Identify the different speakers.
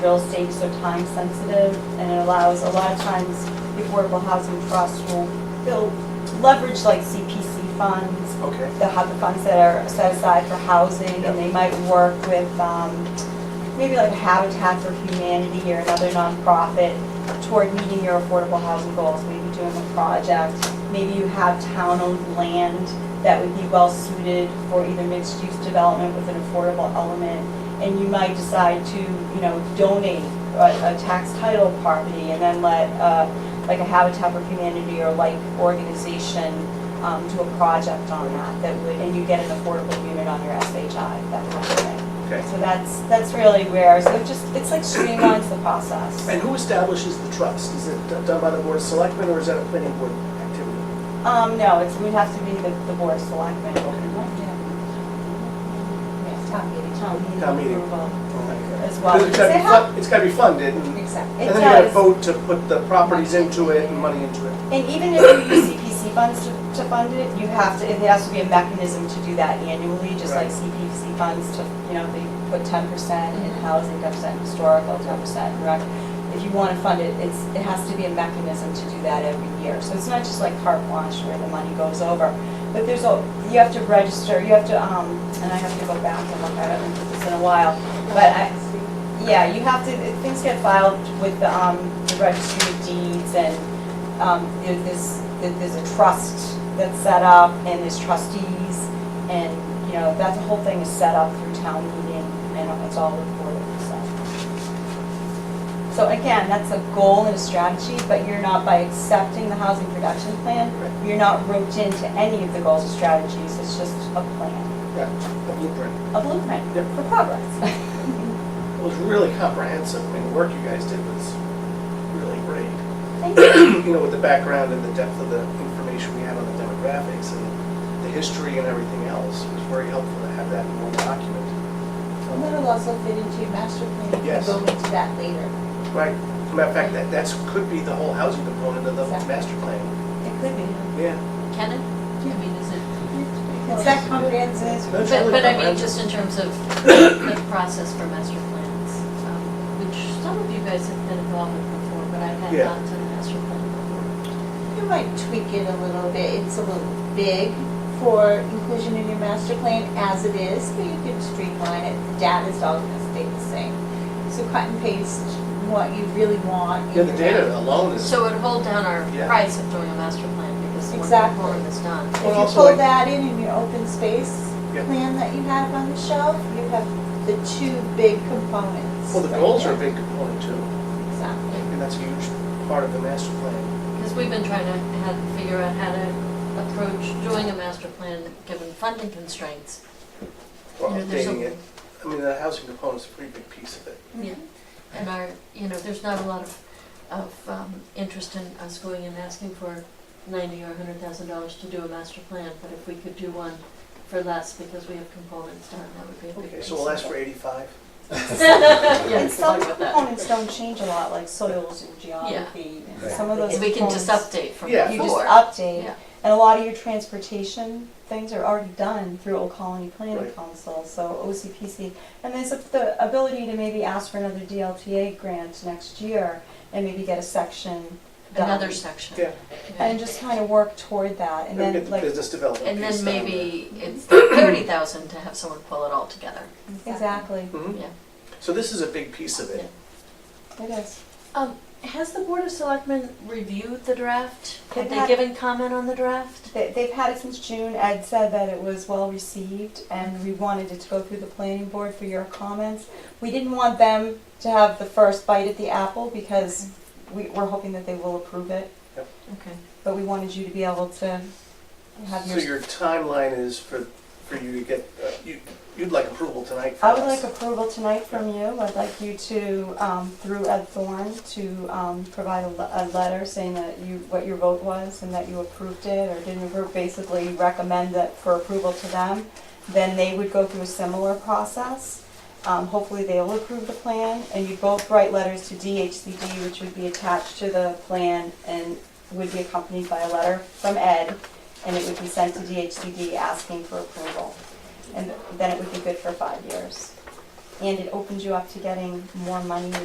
Speaker 1: real estate, so time sensitive, and it allows, a lot of times, the Affordable Housing Trust will, they'll leverage like CPC funds,
Speaker 2: Okay.
Speaker 1: they'll have the funds that are set aside for housing, and they might work with, um, maybe like Habitat for Humanity or another nonprofit toward meeting your affordable housing goals, maybe doing a project, maybe you have town-owned land that would be well-suited for either mixed-use development with an affordable element, and you might decide to, you know, donate a, a tax title property and then let, uh, like a Habitat for Humanity or like organization, um, do a project on that, that would, and you get an affordable unit on your SHI, that kind of thing.
Speaker 2: Okay.
Speaker 1: So that's, that's really where, so it just, it's like streamlines the process.
Speaker 2: And who establishes the trust? Is it done by the Board of Selectmen or is that a planning board activity?
Speaker 1: Um, no, it's, it would have to be the, the board of selectmen. Town meeting.
Speaker 2: Town meeting.
Speaker 1: approval
Speaker 2: Because
Speaker 1: As well.
Speaker 2: It's gotta be
Speaker 1: Because they
Speaker 2: fun- it's gotta be funded and and
Speaker 3: Exactly.
Speaker 1: It
Speaker 2: then you gotta
Speaker 1: does.
Speaker 2: vote to put the properties into it and money into it.
Speaker 1: And even if you use CPC funds to, to fund it, you have to, it has to be a mechanism to do that annually, just like
Speaker 2: Right.
Speaker 1: CPC funds to, you know, they put ten percent in housing, ten percent historical, ten percent rec. If you wanna fund it, it's, it has to be a mechanism to do that every year. So it's not just like carte blanche where the money goes over. But there's a, you have to register, you have to, um, and I have to go back and look, I haven't looked at this in a while, but I, yeah, you have to, it- things get filed with the, um, the registry of deeds and, um, there- there's, there- there's a trust that's set up and there's trustees and, you know, that whole thing is set up through town meeting and it's all reported, so. So again, that's a goal and a strategy, but you're not, by accepting the housing production plan, you're not roped into any of the goals or strategies, it's just a plan,
Speaker 2: Yeah, the blueprint.
Speaker 1: a blueprint
Speaker 2: Yep.
Speaker 1: for progress.
Speaker 2: It was really comprehensive. I mean, the work you guys did was really great.
Speaker 1: Thank you.
Speaker 2: you know, with the background and the depth of the information we had on the demographics and the history and everything else, it was very helpful to have that in one document.
Speaker 3: And that'll also fit into your master plan.
Speaker 2: Yes.
Speaker 3: We'll go into that later.
Speaker 2: Right, matter of fact, that, that's, could be the whole housing component of the master plan.
Speaker 1: It could be.
Speaker 2: Yeah.
Speaker 4: Can it? I mean, is it,
Speaker 3: Is that comprehensive?
Speaker 2: That's
Speaker 4: but,
Speaker 2: really
Speaker 4: but I mean,
Speaker 2: comprehensive.
Speaker 4: just in terms of the process for master plans, um, which some of you guys have been involved with before, but I had
Speaker 2: Yeah.
Speaker 4: not done a master plan before.
Speaker 3: You might tweak it a little bit. It's a little big for inclusion in your master plan as it is, but you could streamline it. The data's all gonna stay the same. So cut and paste what you really want. in
Speaker 2: Yeah, the
Speaker 3: your
Speaker 2: data alone is,
Speaker 4: So it would hold down our
Speaker 2: Yeah.
Speaker 4: price of doing a master plan, because when the
Speaker 3: Exactly.
Speaker 4: form is done.
Speaker 3: If
Speaker 2: Well,
Speaker 3: you
Speaker 2: also I-
Speaker 3: pull that in in your open space
Speaker 2: Yeah.
Speaker 3: plan that you have on the shelf, you have the two big components.
Speaker 2: well, the
Speaker 3: right
Speaker 2: goals are a
Speaker 3: there.
Speaker 2: big component too,
Speaker 3: Exactly.
Speaker 2: and that's a huge part of the master plan.
Speaker 4: Because we've been trying to have, figure out how to approach doing a master plan, given funding constraints.
Speaker 2: Or
Speaker 4: You know, there's a-
Speaker 2: updating it, I mean, the housing component's a pretty big piece of it.
Speaker 4: Yeah, and our, you know, there's not a lot of, of um, interest in us going and asking for ninety or a hundred thousand dollars to do a master plan, but if we could do one for less because we have components done, that would be a big
Speaker 2: Okay,
Speaker 4: piece.
Speaker 2: so we'll ask for eighty-five.
Speaker 4: Yeah,
Speaker 1: And
Speaker 4: good
Speaker 1: some
Speaker 4: luck with that.
Speaker 1: components don't change a lot, like soils and geography, and some of those
Speaker 4: If we can
Speaker 1: components.
Speaker 4: just update from
Speaker 2: Yeah.
Speaker 4: before.
Speaker 1: You just
Speaker 4: Yeah.
Speaker 1: update, and a lot of your transportation things are already done through Old Colony Planning
Speaker 2: Right.
Speaker 1: Council, so OCPC. And there's the ability to maybe ask for another DLTA grant next year, and maybe get a section done.
Speaker 4: Another section.
Speaker 2: Yeah.
Speaker 4: Yeah.
Speaker 1: And just kind of work toward that, and
Speaker 2: And
Speaker 1: then
Speaker 2: get the
Speaker 1: like,
Speaker 2: business development
Speaker 4: And
Speaker 2: piece
Speaker 4: then
Speaker 2: down there.
Speaker 4: maybe it's thirty thousand to have someone pull it all together,
Speaker 1: exactly,
Speaker 2: Mhm.
Speaker 4: yeah.
Speaker 2: So this is a big piece of it.
Speaker 1: it is.
Speaker 4: Um, has the Board of Selectmen reviewed the draft?
Speaker 1: They've
Speaker 4: Have they
Speaker 1: had-
Speaker 4: given comment on the draft?
Speaker 1: They- They've had it since June. Ed said that it was well-received, and we wanted it to go through the planning board for your comments. We didn't want them to have the first bite at the apple, because we- we're hoping that they will approve it,
Speaker 4: Okay.
Speaker 1: but we wanted you to be able to have
Speaker 2: So
Speaker 1: your...
Speaker 2: your timeline is for, for you to get, uh, you, you'd like approval tonight for
Speaker 1: I would
Speaker 2: us?
Speaker 1: like approval tonight from you. I'd like you to, um, through Ed Thorne, to um, provide a le- a letter saying that you, what your vote was, and that you approved it or didn't approve, basically recommend that for approval to them. then they would go through a similar process. Um, Hopefully, they'll approve the plan, and you both write letters to DHCD, which would be attached to the plan and would be accompanied by a letter from Ed, and it would be sent to DHCD asking for approval. And then it would be good for five years. And it opens you up to getting more money